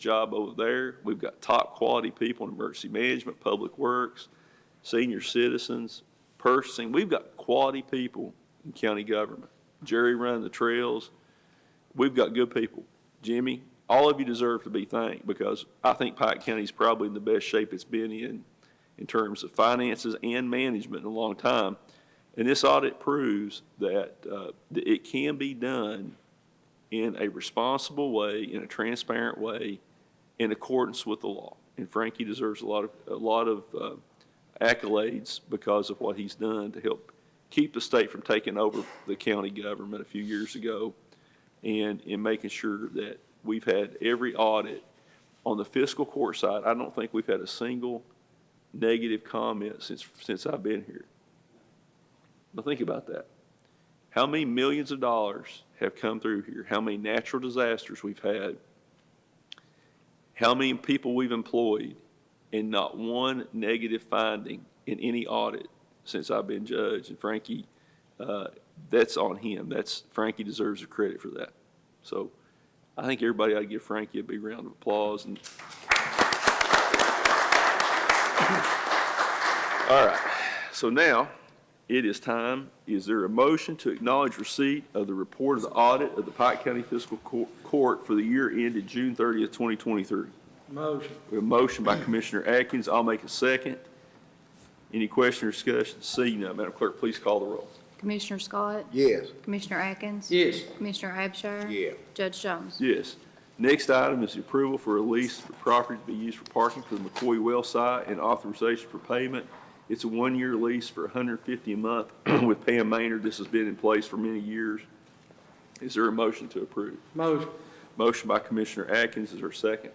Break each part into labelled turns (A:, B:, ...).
A: job over there. We've got top-quality people in emergency management, public works, senior citizens, purchasing. We've got quality people in county government. Jerry running the trails. We've got good people. Jimmy, all of you deserve to be thanked because I think Pike County's probably in the best shape it's been in, in terms of finances and management in a long time. And this audit proves that, uh, that it can be done in a responsible way, in a transparent way, in accordance with the law. And Frankie deserves a lot of, a lot of uh, accolades because of what he's done to help keep the state from taking over the county government a few years ago and in making sure that we've had every audit. On the fiscal court side, I don't think we've had a single negative comment since, since I've been here. But think about that. How many millions of dollars have come through here? How many natural disasters we've had? How many people we've employed? And not one negative finding in any audit since I've been judge. And Frankie, uh, that's on him. That's, Frankie deserves the credit for that. So I think everybody ought to give Frankie a big round of applause and. All right, so now it is time, is there a motion to acknowledge receipt of the report of the audit of the Pike County Fiscal Cour- Court for the year ended June 30th, 2023?
B: Motion.
A: We have a motion by Commissioner Atkins, I'll make a second. Any question or discussion? Seeing none, Madam Clerk, please call the roll.
C: Commissioner Scott?
B: Yes.
C: Commissioner Atkins?
B: Yes.
C: Commissioner Abshire?
B: Yeah.
C: Judge Jones?
A: Yes. Next item is the approval for a lease for property to be used for parking for the McCoy well site and authorization for payment. It's a one-year lease for $150 a month with Pam Maynard. This has been in place for many years. Is there a motion to approve?
B: Motion.
A: Motion by Commissioner Atkins, is there a second?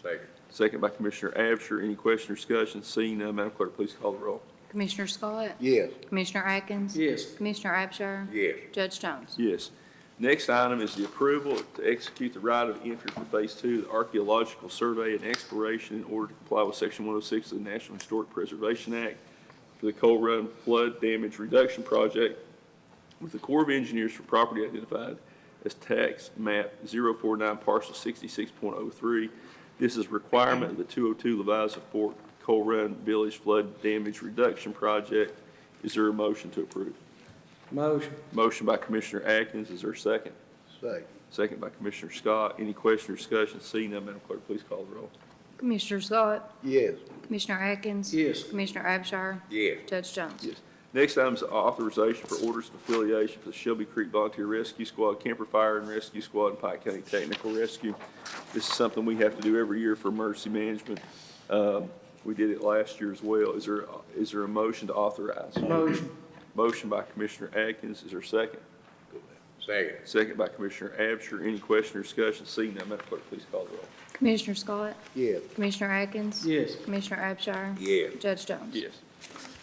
B: Second.
A: Second by Commissioner Abshur. Any question or discussion? Seeing none, Madam Clerk, please call the roll.
C: Commissioner Scott?
B: Yes.
C: Commissioner Atkins?
B: Yes.
C: Commissioner Abshire?
B: Yes.
C: Judge Jones?
A: Yes. Next item is the approval to execute the right of entry for Phase Two, of the archaeological survey and exploration in order to comply with Section 106 of the National Historic Preservation Act for the Coal Run Flood Damage Reduction Project with the Corps of Engineers for property identified as tax map 049 parcel 66.03. This is requirement of the 202 Leviza Fork Coal Run Village Flood Damage Reduction Project. Is there a motion to approve?
B: Motion.
A: Motion by Commissioner Atkins, is there a second?
B: Second.
A: Second by Commissioner Scott. Any question or discussion? Seeing none, Madam Clerk, please call the roll.
C: Commissioner Scott?
B: Yes.
C: Commissioner Atkins?
B: Yes.
C: Commissioner Abshire?
B: Yes.
C: Judge Jones?
A: Yes. Next item is authorization for orders of affiliation for the Shelby Creek Volunteer Rescue Squad, Camper Fire and Rescue Squad, and Pike County Technical Rescue. This is something we have to do every year for emergency management. Um, We did it last year as well. Is there, is there a motion to authorize?
B: Motion.
A: Motion by Commissioner Atkins, is there a second?
B: Second.
A: Second by Commissioner Abshur. Any question or discussion? Seeing none, Madam Clerk, please call the roll.
C: Commissioner Scott?
B: Yes.
C: Commissioner Atkins?
B: Yes.
C: Commissioner Abshire?
B: Yeah.
C: Judge Jones?
A: Yes.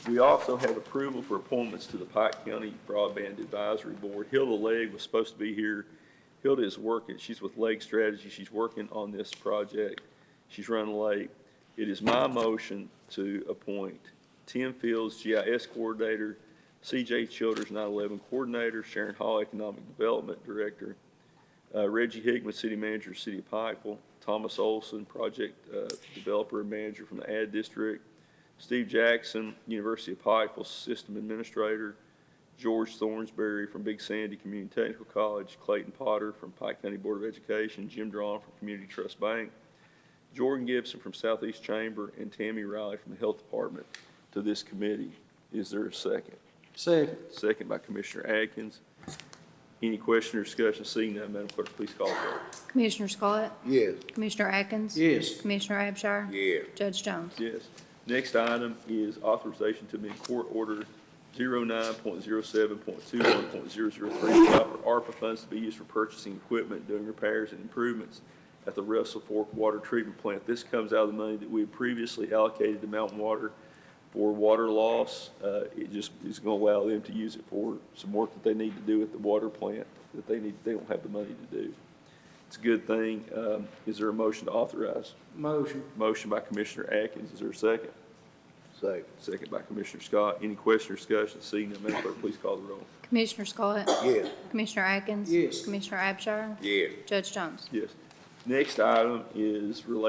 A: We also have approval for appointments to the Pike County Broadband Advisory Board. Hilda Legg was supposed to be here. Hilda is working, she's with Leg Strategy, she's working on this project. She's running late. It is my motion to appoint Tim Fields, GIS Coordinator, CJ Childers, 9/11 Coordinator, Sharon Hall, Economic Development Director, uh, Reggie Hickman, City Manager, City of Pikeville, Thomas Olson, Project uh, Developer and Manager from the Ad District, Steve Jackson, University of Pikeville System Administrator, George Thornsberry from Big Sandy Community Technical College, Clayton Potter from Pike County Board of Education, Jim Drawn from Community Trust Bank, Jordan Gibson from Southeast Chamber, and Tammy Riley from the Health Department to this committee. Is there a second?
B: Second.
A: Second by Commissioner Atkins. Any question or discussion? Seeing none, Madam Clerk, please call the roll.
C: Commissioner Scott?
B: Yes.
C: Commissioner Atkins?
B: Yes.
C: Commissioner Abshire?
B: Yeah.
C: Judge Jones?
A: Yes. Next item is authorization to amend court order 09.07.21.003, to allow for ARPA funds to be used for purchasing equipment, doing repairs and improvements at the Russell Fork Water Treatment Plant. This comes out of the money that we had previously allocated to Mountain Water for water loss. Uh, It just is going to allow them to use it for some work that they need to do at the water plant that they need, they don't have the money to do. It's a good thing. Um, Is there a motion to authorize?
B: Motion.
A: Motion by Commissioner Atkins, is there a second?
B: Second.
A: Second by Commissioner Scott. Any question or discussion? Seeing none, Madam Clerk, please call the roll.
C: Commissioner Scott?
B: Yes.
C: Commissioner Atkins?
B: Yes.
C: Commissioner Abshire?
B: Yeah.
C: Judge Jones?
A: Yes. Next item is related